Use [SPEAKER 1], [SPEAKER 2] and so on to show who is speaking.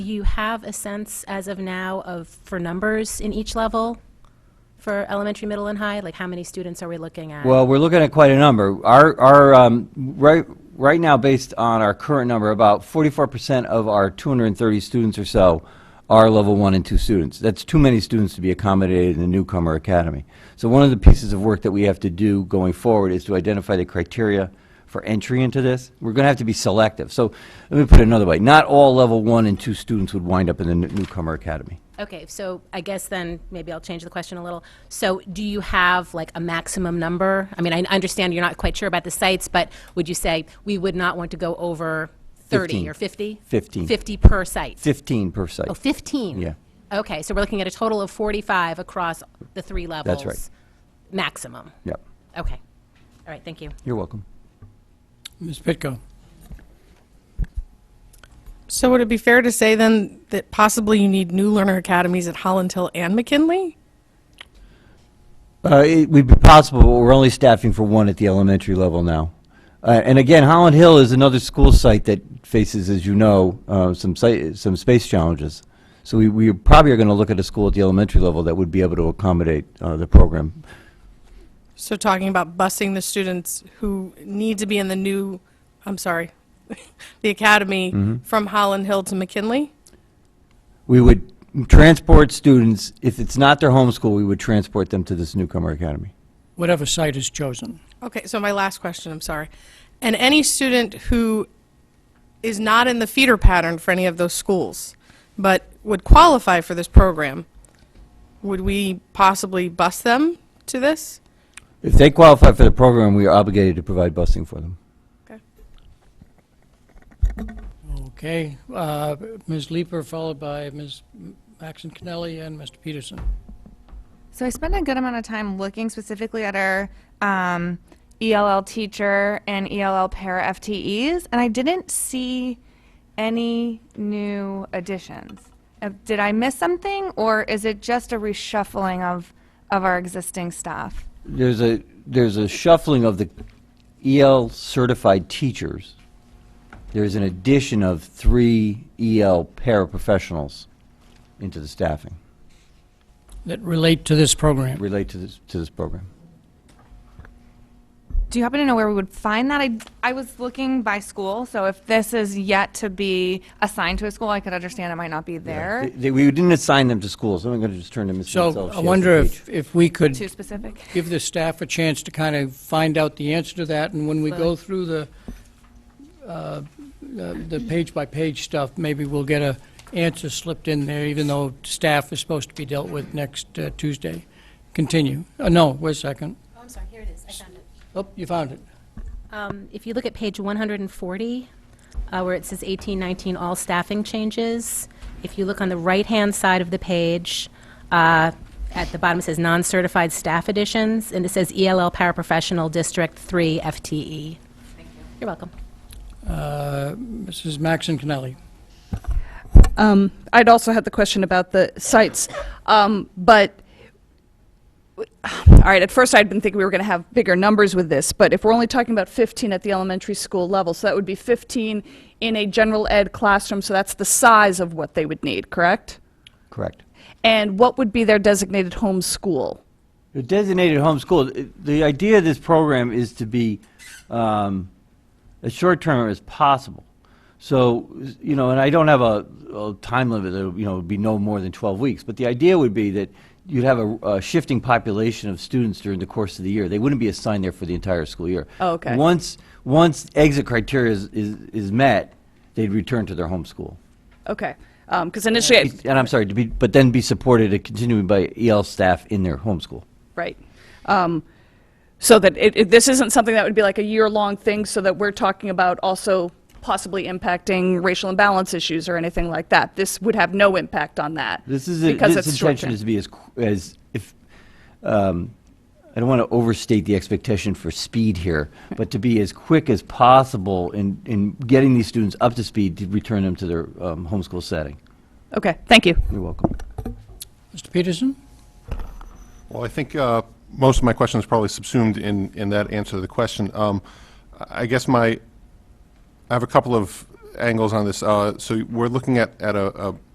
[SPEAKER 1] you have a sense as of now of, for numbers in each level for elementary, middle, and high? Like, how many students are we looking at?
[SPEAKER 2] Well, we're looking at quite a number. Our, our, um, right, right now, based on our current number, about forty-four percent of our two hundred and thirty students or so are level one and two students. That's too many students to be accommodated in the newcomer academy. So one of the pieces of work that we have to do going forward is to identify the criteria for entry into this. We're gonna have to be selective. So, let me put it another way. Not all level one and two students would wind up in the n- newcomer academy.
[SPEAKER 1] Okay, so I guess then, maybe I'll change the question a little. So do you have, like, a maximum number? I mean, I understand you're not quite sure about the sites, but would you say, we would not want to go over 30
[SPEAKER 2] Fifteen.
[SPEAKER 1] or 50?
[SPEAKER 2] Fifteen.
[SPEAKER 1] 50 per site?
[SPEAKER 2] Fifteen per site.
[SPEAKER 1] Oh, 15?
[SPEAKER 2] Yeah.
[SPEAKER 1] Okay, so we're looking at a total of 45 across the three levels?
[SPEAKER 2] right.
[SPEAKER 1] Maximum?
[SPEAKER 2] Yep.
[SPEAKER 1] Okay. All right, thank you.
[SPEAKER 2] You're welcome.
[SPEAKER 3] Ms. Pitko.
[SPEAKER 4] So would it be fair to say then that possibly you need new learner academies at Holland Hill and McKinley?
[SPEAKER 2] Uh, It would be possible, but we're only staffing for one at the elementary level now. Uh, And again, Holland Hill is another school site that faces, as you know, uh, some site, some space challenges. So we, we probably are going to look at a school at the elementary level that would be able to accommodate uh, the program.
[SPEAKER 4] So talking about busing the students who need to be in the new, I'm sorry, the academy from Holland Hill to McKinley?
[SPEAKER 2] We would transport students, if it's not their home school, we would transport them to this newcomer academy.
[SPEAKER 3] Whatever site is chosen.
[SPEAKER 4] Okay, so my last question, I'm sorry. And any student who is not in the feeder pattern for any of those schools, but would qualify for this program, would we possibly bus them to this?
[SPEAKER 2] If they qualify for the program, we are obligated to provide busing for them.
[SPEAKER 3] Okay. uh, Ms. Leeper, followed by Ms. Maxon Connelly and Mr. Peterson.
[SPEAKER 5] So I spent a good amount of time looking specifically at our um, ELL teacher and ELL para FTEs, and I didn't see any new additions. Uh, did I miss something, or is it just a reshuffling of of our existing staff?
[SPEAKER 2] there's a, there's a shuffling of the EL certified teachers. There's an addition of three EL paraprofessionals into the staffing,
[SPEAKER 3] That relate to this program.
[SPEAKER 2] relate to this, to this program.
[SPEAKER 5] Do you happen to know where we would find that? I, I was looking by school, so if this is yet to be assigned to a school, I could understand it might not be there.
[SPEAKER 2] They- they- We didn't assign them to schools, I'm going to just turn to Ms. Mansell.
[SPEAKER 3] So
[SPEAKER 2] if she
[SPEAKER 3] I
[SPEAKER 2] has a
[SPEAKER 3] wonder
[SPEAKER 2] page.
[SPEAKER 3] if, if we
[SPEAKER 5] Too
[SPEAKER 3] could
[SPEAKER 5] specific.
[SPEAKER 3] give the staff a chance to kind of find out the answer to that, and when we go through the, uh, the the page-by-page stuff, maybe we'll get a answer slipped in there, even though staff is supposed to be dealt with next uh, Tuesday. Continue. Uh, No, wait a second.
[SPEAKER 1] Oh, I'm sorry, here it is, I found it.
[SPEAKER 3] Oh, you found it.
[SPEAKER 1] Um, If you look at page 140, uh, where it says 1819, all staffing changes, if you look on the right-hand side of the page, uh, at the bottom it says non-certified staff additions, and it says ELL paraprofessional District 3 FTE. Thank you. E. You're welcome.
[SPEAKER 3] Uh, Mrs. Maxon Connelly.
[SPEAKER 6] Um, I'd also had the question about the sites, um, but, all right, at first I'd been thinking we were going to have bigger numbers with this, but if we're only talking about 15 at the elementary school level, so that would be 15 in a general ed classroom, so that's the size of what they would need, correct?
[SPEAKER 2] Correct.
[SPEAKER 6] And what would be their designated home school?
[SPEAKER 2] The designated home school, i- the idea of this program is to be um, as short-term as possible. So, s- you know, and I don't have a a time limit, it'll, you know, it'd be no more than 12 weeks, but the idea would be that you'd have a a shifting population of students during the course of the year. They wouldn't be assigned there for the entire school year.
[SPEAKER 6] Oh, okay.
[SPEAKER 2] Once, once exit criteria is- is is met, they'd return to their home school.
[SPEAKER 6] Okay, because initially, I-
[SPEAKER 2] And I'm sorry, to be, but then be supported and continuing by EL staff in their home school.
[SPEAKER 6] Right. Um, So that it, it- this isn't something that would be like a year-long thing, so that we're talking about also possibly impacting racial imbalance issues or anything like that. This would have no impact on that.
[SPEAKER 2] This is, a-
[SPEAKER 6] because
[SPEAKER 2] this
[SPEAKER 6] it's
[SPEAKER 2] intention
[SPEAKER 6] short-term.
[SPEAKER 2] is to be as, qu- as, if, um, I don't want to overstate the expectation for speed here, but to be as quick as possible in, in getting these students up to speed to return them to their um, homeschool setting.
[SPEAKER 6] Okay, thank you.
[SPEAKER 2] You're welcome.
[SPEAKER 3] Mr. Peterson?
[SPEAKER 7] Well, I think uh, most of my question is probably subsumed in, in that answer to the question. Um, I I guess my, I have a couple of angles on this. Uh, So we're looking at, at a a